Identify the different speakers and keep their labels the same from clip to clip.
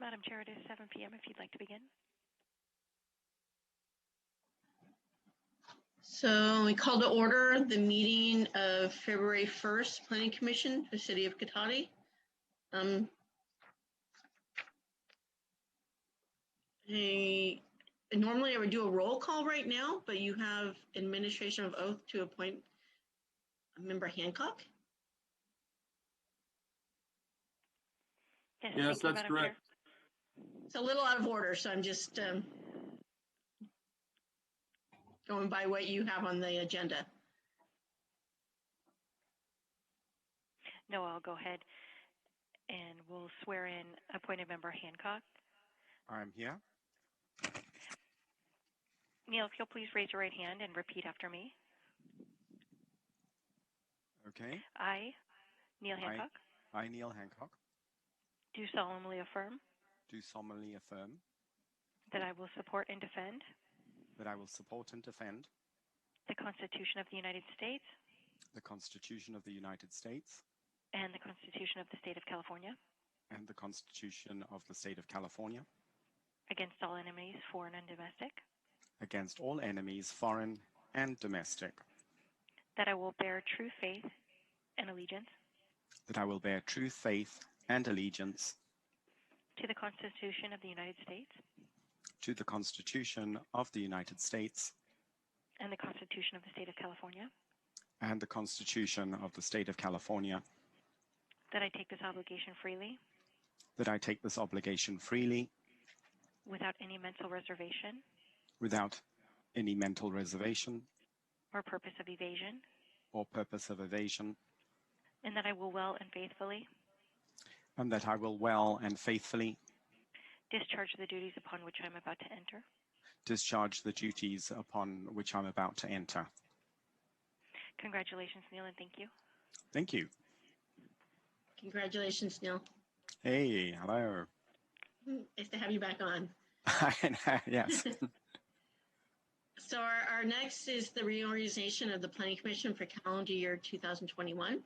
Speaker 1: Madam Chair, it is 7 P.M. if you'd like to begin.
Speaker 2: So we call to order the meeting of February 1st, Planning Commission, for the City of Cotati. Um, I- Normally I would do a roll call right now, but you have administration of oath to appoint Member Hancock.
Speaker 1: Yes,
Speaker 3: Yes,
Speaker 1: thank you,
Speaker 3: that's
Speaker 1: Madam Chair.
Speaker 3: correct.
Speaker 2: It's a little out of order, so I'm just um, going by what you have on the agenda.
Speaker 1: No, I'll go ahead and we'll swear in appointed member Hancock.
Speaker 4: I'm here.
Speaker 1: Neil, if you'll please raise your right hand and repeat after me.
Speaker 4: Okay.
Speaker 1: I, Neil
Speaker 4: Aye.
Speaker 1: Hancock,
Speaker 4: I, Neil Hancock,
Speaker 1: do solemnly affirm
Speaker 4: do solemnly affirm
Speaker 1: that I will support and defend
Speaker 4: that I will support and defend
Speaker 1: the Constitution of the United States
Speaker 4: the Constitution of the United States
Speaker 1: and the Constitution of the State of California
Speaker 4: and the Constitution of the State of California
Speaker 1: against all enemies, foreign and domestic,
Speaker 4: against all enemies, foreign and domestic,
Speaker 1: that I will bear true faith and allegiance
Speaker 4: that I will bear true faith and allegiance
Speaker 1: to the Constitution of the United States
Speaker 4: to the Constitution of the United States
Speaker 1: and the Constitution of the State of California,
Speaker 4: and the Constitution of the State of California,
Speaker 1: that I take this obligation freely
Speaker 4: that I take this obligation freely
Speaker 1: without any mental reservation
Speaker 4: without any mental reservation
Speaker 1: or purpose of evasion,
Speaker 4: or purpose of evasion,
Speaker 1: and that I will well and faithfully
Speaker 4: and that I will well and faithfully
Speaker 1: discharge the duties upon which I am about to enter.
Speaker 4: discharge the duties upon which I'm about to enter.
Speaker 1: Congratulations, Neil, and thank you.
Speaker 4: Thank you.
Speaker 2: Congratulations, Neil.
Speaker 4: Hey, hello.
Speaker 2: Nice to have you back on.
Speaker 4: yes.
Speaker 2: So our, our next is the reorganization of the planning commission for calendar year 2021.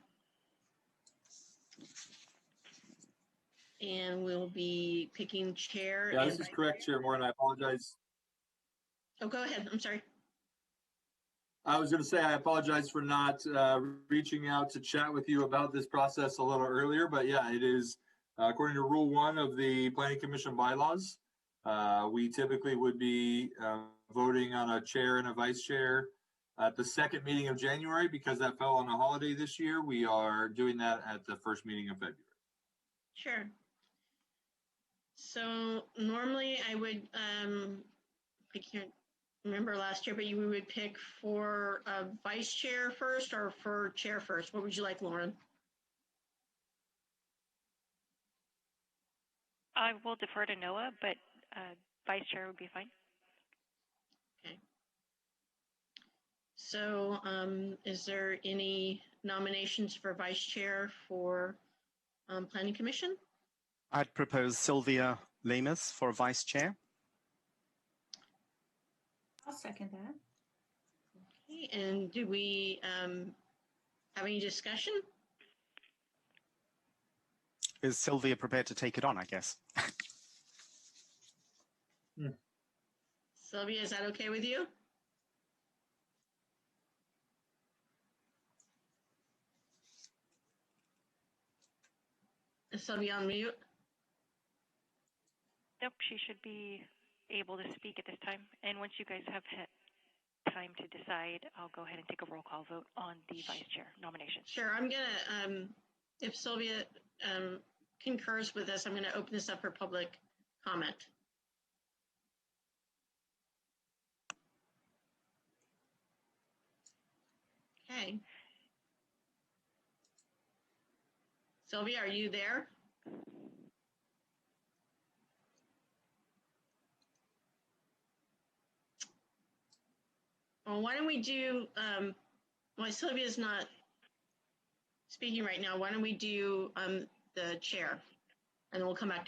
Speaker 2: And we'll be picking chair.
Speaker 3: Yeah, this
Speaker 2: and-
Speaker 3: is correct, Chair Moore, and I apologize.
Speaker 2: Oh, go ahead. I'm sorry.
Speaker 3: I was going to say, I apologize for not uh, reaching out to chat with you about this process a little earlier, but yeah, it is uh, according to Rule One of the Planning Commission bylaws. Uh, we typically would be uh, voting on a chair and a vice chair at the second meeting of January because that fell on a holiday this year. We are doing that at the first meeting of February.
Speaker 2: Sure. So normally I would, um, I can't remember last year, but you would pick for uh, vice chair first or for chair first. What would you like, Lauren?
Speaker 1: I will defer to Noah, but uh, vice chair would be fine.
Speaker 2: So um, is there any nominations for vice chair for um, planning commission?
Speaker 4: I'd propose Sylvia Lamus for vice chair.
Speaker 5: I'll second that.
Speaker 2: Okay, And do we um, have any discussion?
Speaker 4: Is Sylvia prepared to take it on? I guess.
Speaker 2: Sylvia, is that okay with you? Is Sylvia on mute?
Speaker 1: Nope, she should be able to speak at this time. And once you guys have had time to decide, I'll go ahead and take a roll call vote on the vice chair nomination.
Speaker 2: Sure, I'm gonna, um, if Sylvia um, concurs with us, I'm gonna open this up for public comment. Okay. Sylvia, are you there? Well, why don't we do, um, well, Sylvia's not speaking right now. Why don't we do um, the chair? And then we'll come back to